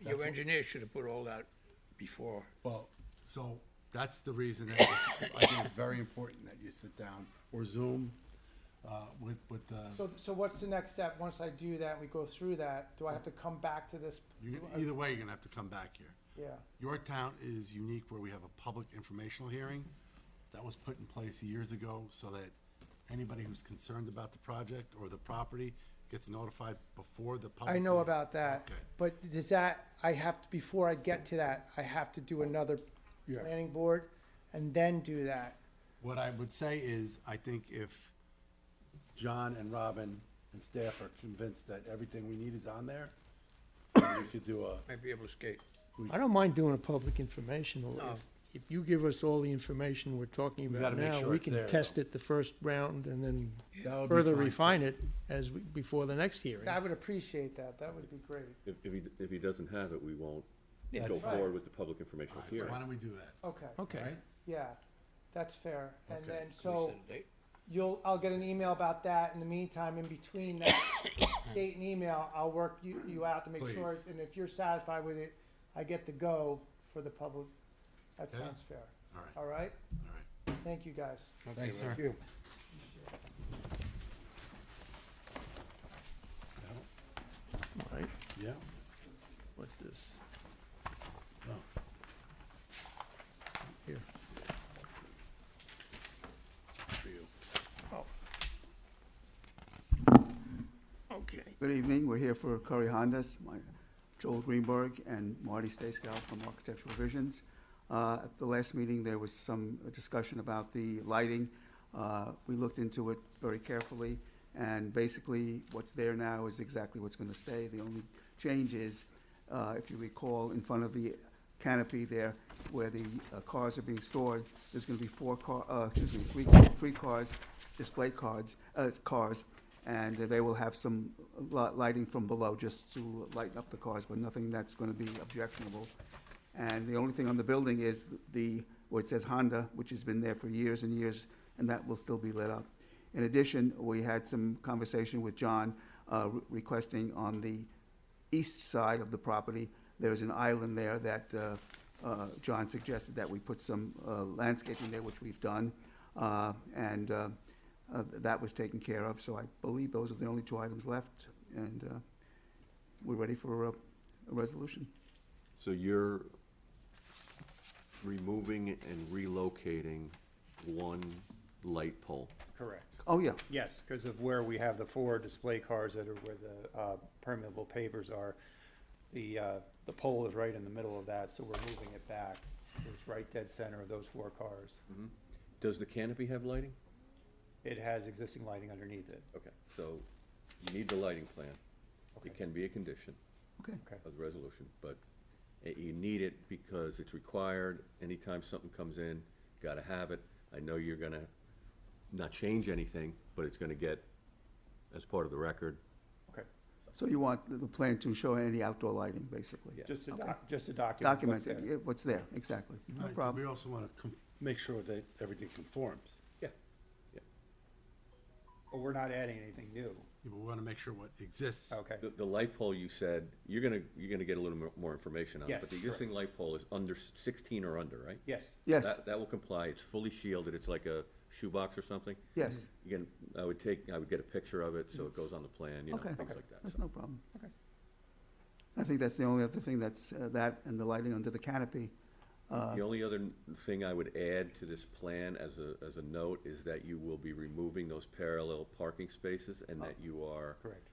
Your engineer should have put all that before. Well, so that's the reason that I think it's very important that you sit down or Zoom uh, with, with the, So, so what's the next step? Once I do that, we go through that, do I have to come back to this? you- either way, you're gonna have to come back here. Yeah, Yorktown is unique where we have a public informational hearing that was put in place years ago so that anybody who's concerned about the project or the property gets notified before the public. I know hearing. about that, Okay. but does that, I have, to before I get to that, I have to do another planning board and then do that? What I would say is, I think if John and Robin and staff are convinced that everything we need is on there, we could do a, Might be able to skate. I don't mind doing a public informational. No. If- If you give us all the information we're talking gotta about make now, sure we it's can there, test though. it the first round and then That would be further fine, too. refine it as, we- before the next hearing. I would appreciate that, that would be great. If, if he, if he doesn't have it, we won't go fine. forward with the public information All right, so hearing. why don't we do that? Okay, Okay. yeah, that's fair. And Oh. Okay. then, Can we so set a date? you'll, I'll get an email about that. In the meantime, in between that date and email, I'll work you, you out to make sure. Please. And if you're satisfied with it, I get the go for the public. That Yeah. sounds fair. All right, All right? all right. Thank you, guys. Okay, Thanks, well, sir. All right, Yeah, what's this? Oh. Here. for you. Okay. Good evening, we're here for Curry Hondas, my, Joel Greenberg and Marty Stacegow from Architectural Visions. Uh, at the last meeting, there was some discussion about the lighting. Uh, we looked into it very carefully, and basically, what's there now is exactly what's gonna stay. The only change is, uh, if you recall, in front of the canopy there, where the uh, cars are being stored, there's gonna be four car, uh, excuse me, three, three cars, display cards, uh, cars, and they will have some li- lighting from below just to lighten up the cars, but nothing that's going to be objectionable. And the only thing on the building is the, where it says Honda, which has been there for years and years, and that will still be lit up. In addition, we had some conversation with John uh, re- requesting on the east side of the property, there's an island there that uh, uh, John suggested that we put some uh, landscaping there, which we've done. Uh, And uh, uh, that was taken care of, so I believe those are the only two items left. And uh, we're ready for a a resolution. So you're removing and relocating one light pole. Correct. Oh, yeah, Yes, because of where we have the four display cars that are where the uh, permeable pavers are. The, uh, the pole is right in the middle of that, so we're moving it back. So It's right dead center of those four cars. Mm-hmm. Does the canopy have lighting? It has existing lighting underneath it. Okay, so you need the lighting plan. It can be a condition okay. Okay. of the resolution, but eh, you need it because it's required. Anytime something comes in, gotta have it. I know you're gonna not change anything, but it's gonna get as part of the record. Okay. So you want the- the plan to show any outdoor lighting, basically? Yeah. Just to, doc- just to document. Document what's there. it, what's there, exactly. All No right, so problem. We also want to make sure that everything conforms. Yeah. Yeah. But we're not adding anything new. Yeah, but We want to make sure what exists. Okay. The, the light pole, you said, you're gonna, you're gonna get a little more, more information on it, Yes, but the existing light pole is under s- sixteen or under, right? Yes. Yes, That, that will comply, it's fully shielded, it's like a shoebox or something. yes, You can, I would take, I would get a picture of it, so it goes on the plan, you know, Okay. things like that. that's no problem. Okay. I think that's the only other thing that's, uh, that and the lighting under the canopy. Uh, The only other n- thing I would add to this plan as a, as a note is that you will be removing those parallel parking spaces and that you are. Correct.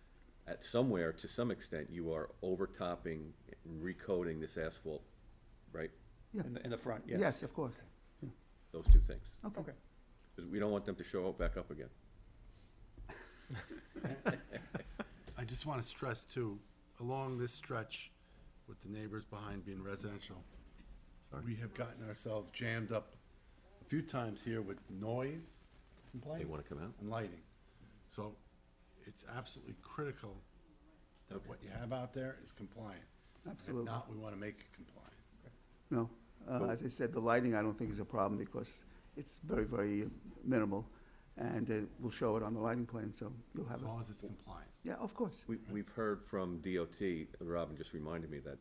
At somewhere, to some extent, you are overtopping, and recoding this asphalt, right? Yeah. In the, in the front, yes. Yes, of course. Those two things. Okay. Okay. 'Cause we don't want them to show up back up again. I just want to stress too, along this stretch with the neighbors behind being residential, we have gotten ourselves jammed up a few times here with noise complaints. wanna come out? And lighting. So it's absolutely critical that what you have out there is compliant. And Absolutely. If not, we want to make it compliant. No, uh, as I said, the lighting I don't think is a problem because it's very, very minimal. And it will show it on the lighting plan, so you'll have As it. long as it's compliant. Yeah, of course. We, we've heard from DOT, Robin just reminded me that